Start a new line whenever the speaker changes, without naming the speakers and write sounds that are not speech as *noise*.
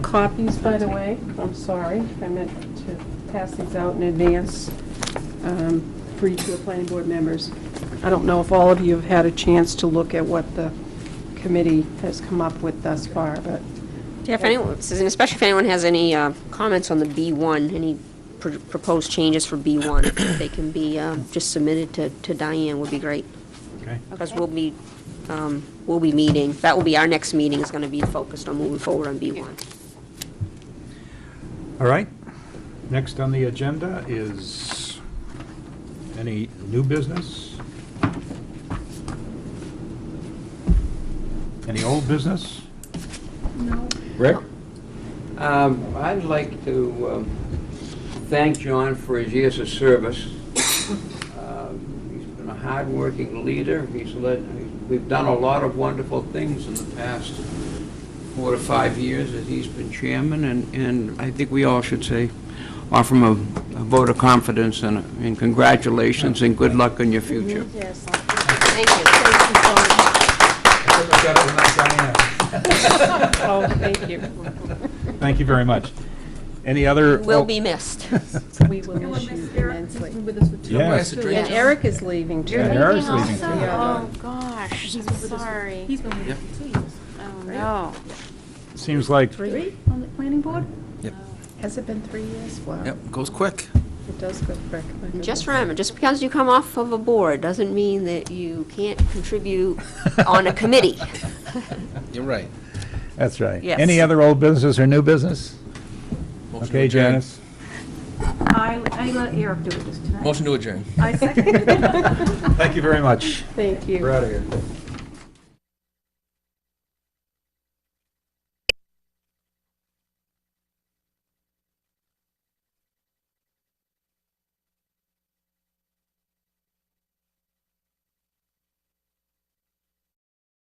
copies, by the way. I'm sorry, I meant to pass these out in advance um, for each of the planning board members. I don't know if all of you have had a chance to look at what the committee has come up with thus far, but
Yeah, if anyone, and especially if anyone has any uh, comments on the B1, any pr- proposed changes for B1, if they can be um, just submitted to to Diane would be great.
Okay.
Because we'll be, um, we'll be meeting, that will be, our next meeting is going to be focused on moving forward on B1.
All right. Next on the agenda is any new business? Any old business?
Rick?
Um, I'd like to um, thank John for his years of service. Um, He's been a hard-working leader. He's led, we've done a lot of wonderful things in the past four to five years that he's been chairman, and, and I think we all should say, offer him a a vote of confidence and and congratulations and good luck in your future.
Thank you.
Oh, thank
*laughs*
you.
Thank you very much. Any other?
Will be missed.
We will miss you immensely.
Yes.
And Eric is leaving, too.
Yeah, Eric's leaving too.
Oh, gosh, I'm sorry. He's been
Yep.
for two years. Oh, no.
Seems like,
Three on the planning board?
Yep.
Has it been three years? Wow.
Yep, goes quick.
It does go quick. my
And Just
goodness.
remember, just because you come off of a board doesn't mean that you can't contribute on a committee.
You're right.
that's right.
Yes.
Any other old business or new business?
Motion to
Okay,
adjourn.
Janice?
I, I let Eric do it this time.
Motion to adjourn.
I second it.
Thank you very much.
Thank you.
We're out of here.